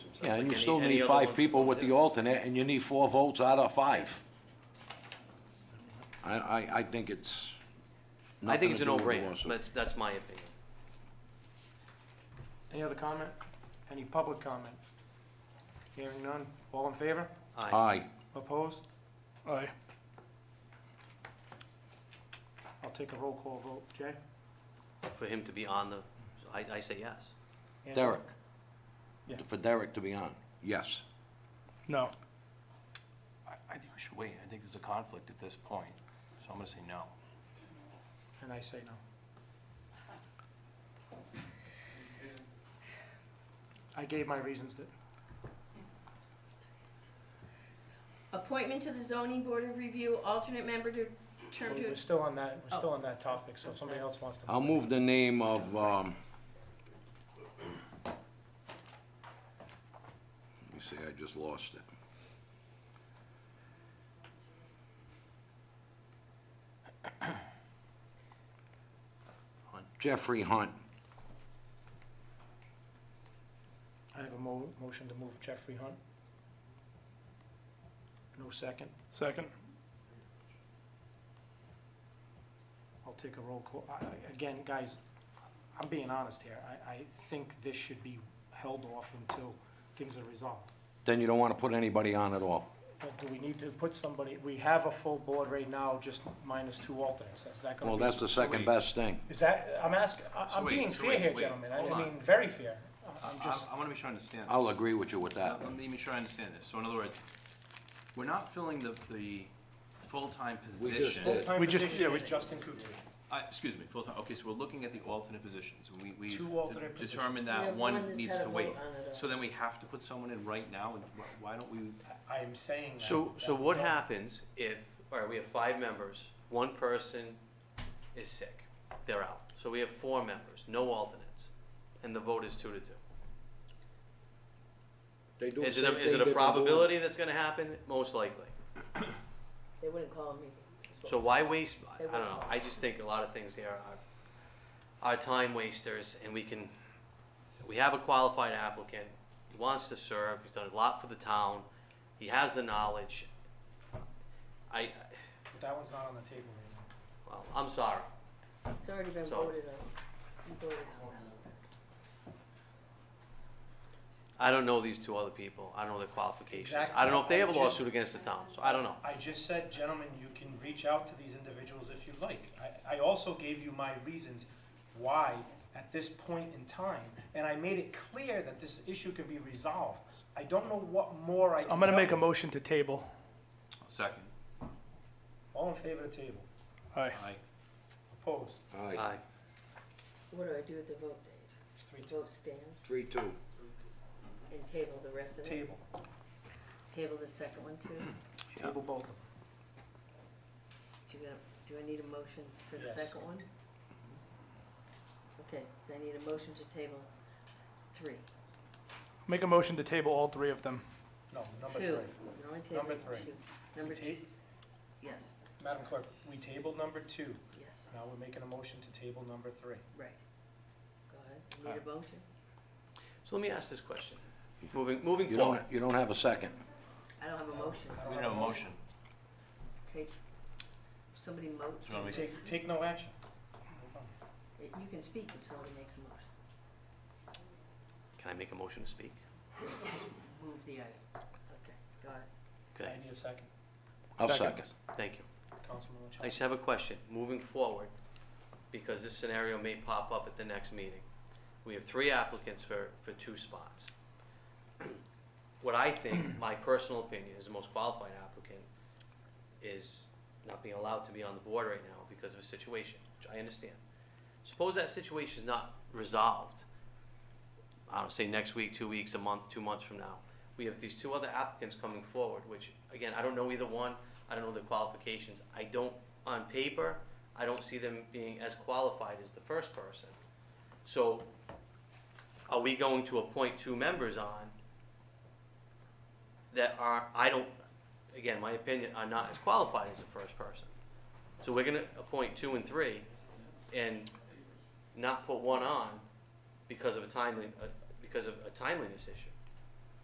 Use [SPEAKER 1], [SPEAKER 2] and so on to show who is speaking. [SPEAKER 1] just
[SPEAKER 2] Yeah,
[SPEAKER 1] like
[SPEAKER 2] and you
[SPEAKER 1] any-
[SPEAKER 2] still
[SPEAKER 1] any
[SPEAKER 2] need
[SPEAKER 1] other
[SPEAKER 2] five
[SPEAKER 1] ones.
[SPEAKER 2] people with the alternate, and you need four votes out of five. I, I, I think it's.
[SPEAKER 1] I think it's a
[SPEAKER 2] nothing to do with the
[SPEAKER 1] no-brainer,
[SPEAKER 2] lawsuit.
[SPEAKER 1] that's, that's my opinion.
[SPEAKER 3] Any other comment? Any public comment? Hearing none. All in favor?
[SPEAKER 1] Aye.
[SPEAKER 2] Aye,
[SPEAKER 3] Opposed?
[SPEAKER 4] Aye.
[SPEAKER 3] I'll take a roll call vote. Jay?
[SPEAKER 1] For him to be on the, I, I say yes.
[SPEAKER 3] Andy?
[SPEAKER 2] Derek.
[SPEAKER 3] Yeah.
[SPEAKER 2] For Derek to be on, yes.
[SPEAKER 4] No.
[SPEAKER 5] I, I think we should wait. I think there's a conflict at this point, so I'm gonna say no.
[SPEAKER 3] And I say no. I gave my reasons that,
[SPEAKER 6] Appointment to the zoning board of review, alternate member to term
[SPEAKER 3] we're
[SPEAKER 6] to,
[SPEAKER 3] still on that, we're still on that topic, so if somebody else wants to.
[SPEAKER 2] I'll move the name of, um, let me see, I just lost it. Jeffrey Hunt.
[SPEAKER 3] I have a mo- motion to move Jeffrey Hunt. No second.
[SPEAKER 4] Second.
[SPEAKER 3] I'll take a roll call. I- I- Again, guys, I'm being honest here. I, I think this should be held off until things are resolved.
[SPEAKER 2] Then you don't want to put anybody on at all.
[SPEAKER 3] But do we need to put somebody, we have a full board right now, just minus two alternates. Is that gonna
[SPEAKER 2] Well,
[SPEAKER 3] be?
[SPEAKER 2] that's the second best thing.
[SPEAKER 3] Is that, I'm asking,
[SPEAKER 5] So
[SPEAKER 3] I'm
[SPEAKER 5] wait,
[SPEAKER 3] being
[SPEAKER 5] so
[SPEAKER 3] fair
[SPEAKER 5] wait,
[SPEAKER 3] here,
[SPEAKER 5] wait,
[SPEAKER 3] gentlemen. I
[SPEAKER 5] hold
[SPEAKER 3] I
[SPEAKER 5] on.
[SPEAKER 3] mean, very fair. I- I'm
[SPEAKER 5] I-
[SPEAKER 3] just,
[SPEAKER 5] I wanna make sure I understand this. Uh,
[SPEAKER 2] I'll agree with you with that.
[SPEAKER 5] Let me make sure I understand this. So in other words, we're not filling the, the full-time
[SPEAKER 2] We just
[SPEAKER 5] position.
[SPEAKER 2] did.
[SPEAKER 3] full-time
[SPEAKER 4] We just- yeah,
[SPEAKER 3] position
[SPEAKER 4] we-
[SPEAKER 3] is Justin Kutu.
[SPEAKER 5] I, excuse me, full-time, okay, so we're looking at the alternate positions. and We, we
[SPEAKER 3] Two alternate positions.
[SPEAKER 5] determined
[SPEAKER 6] We
[SPEAKER 5] that
[SPEAKER 6] have one
[SPEAKER 5] one
[SPEAKER 6] that's
[SPEAKER 5] needs
[SPEAKER 6] had
[SPEAKER 5] to
[SPEAKER 6] a
[SPEAKER 5] wait.
[SPEAKER 6] vote on it uh,
[SPEAKER 5] So then we have to put someone in right now, and wh- why don't we,
[SPEAKER 3] I am saying that.
[SPEAKER 1] So, so what
[SPEAKER 3] that-
[SPEAKER 1] happens if, all right, we have five members, one person is sick, they're out. So we have four members, no alternates, and the vote is two to two.
[SPEAKER 2] They do
[SPEAKER 1] Is
[SPEAKER 2] the
[SPEAKER 1] it,
[SPEAKER 2] same
[SPEAKER 1] a- is
[SPEAKER 2] thing
[SPEAKER 1] it
[SPEAKER 2] that
[SPEAKER 1] a
[SPEAKER 2] they do-
[SPEAKER 1] probability that's gonna happen? Most likely.
[SPEAKER 6] they wouldn't call a meeting.
[SPEAKER 1] So why waste, I
[SPEAKER 6] They
[SPEAKER 1] don't know,
[SPEAKER 6] won't.
[SPEAKER 1] I just think a lot of things here are, are time wasters, and we can, we have a qualified applicant, he wants to serve, he's done a lot for the town, he has the knowledge. I,
[SPEAKER 3] That one's not on the table right now.
[SPEAKER 1] well, I'm sorry,
[SPEAKER 6] It's already been
[SPEAKER 1] So-
[SPEAKER 6] voted on. You voted on that.
[SPEAKER 1] I don't know these two other people, I don't know their qualifications,
[SPEAKER 3] Exactly.
[SPEAKER 1] I don't know if they have a
[SPEAKER 3] I just-
[SPEAKER 1] lawsuit against the town, so I don't know.
[SPEAKER 3] I just said, gentlemen, you can reach out to these individuals if you like. I, I also gave you my reasons why at this point in time, and I made it clear that this issue can be resolved. I don't know what more I can
[SPEAKER 4] I'm gonna make a
[SPEAKER 3] tell you.
[SPEAKER 4] motion to table.
[SPEAKER 5] second,
[SPEAKER 3] All in favor of the table?
[SPEAKER 4] Aye.
[SPEAKER 5] I,
[SPEAKER 3] Opposed?
[SPEAKER 2] Aye,
[SPEAKER 1] Aye.
[SPEAKER 6] What do I do with the vote, Dave?
[SPEAKER 3] It's three
[SPEAKER 6] Vote stands
[SPEAKER 2] three, two.
[SPEAKER 6] and table the rest
[SPEAKER 3] to
[SPEAKER 6] of it?
[SPEAKER 3] table.
[SPEAKER 6] Table the second one too?
[SPEAKER 2] Yeah.
[SPEAKER 3] Table both of them.
[SPEAKER 6] Do you, do I need a motion for the
[SPEAKER 3] Yes.
[SPEAKER 6] second one? Okay, so I need a motion to table three.
[SPEAKER 4] Make a motion to table all three of them.
[SPEAKER 3] No, number
[SPEAKER 6] Two.
[SPEAKER 3] three.
[SPEAKER 6] We're only
[SPEAKER 3] Number
[SPEAKER 6] tabling
[SPEAKER 3] three.
[SPEAKER 6] two. Number
[SPEAKER 3] We
[SPEAKER 6] two,
[SPEAKER 3] ta-
[SPEAKER 6] yes,
[SPEAKER 3] Madam Clerk, we tabled number two.
[SPEAKER 6] yes,
[SPEAKER 3] Now we're making a motion to table number three.
[SPEAKER 6] right. Go ahead, need a motion?
[SPEAKER 1] So let me ask this question, moving, moving
[SPEAKER 2] You
[SPEAKER 1] forward.
[SPEAKER 2] don't, you don't have a second.
[SPEAKER 6] I don't have a motion.
[SPEAKER 5] we don't have a motion.
[SPEAKER 6] Okay, somebody
[SPEAKER 5] Do you wanna
[SPEAKER 6] motion.
[SPEAKER 5] make-
[SPEAKER 3] Take, take no action. Move on.
[SPEAKER 6] You can speak if somebody makes a motion.
[SPEAKER 1] Can I make a motion to speak?
[SPEAKER 6] Move the item. Okay, got it.
[SPEAKER 1] Okay,
[SPEAKER 3] I need a second.
[SPEAKER 2] I'll
[SPEAKER 4] Second.
[SPEAKER 2] second.
[SPEAKER 1] thank you.
[SPEAKER 3] Councilman
[SPEAKER 1] I
[SPEAKER 3] Luchon.
[SPEAKER 1] just have a question, moving forward, because this scenario may pop up at the next meeting. We have three applicants for, for two spots. What I think, my personal opinion, is the most qualified applicant is not being allowed to be on the board right now because of a situation, which I understand. Suppose that situation is not resolved, I don't say next week, two weeks, a month, two months from now. We have these two other applicants coming forward, which, again, I don't know either one, I don't know their qualifications. I don't, on paper, I don't see them being as qualified as the first person. So are we going to appoint two members on that are, I don't, again, my opinion, are not as qualified as the first person? So we're gonna appoint two and three and not put one on because of a timely, uh, because of a timeliness issue.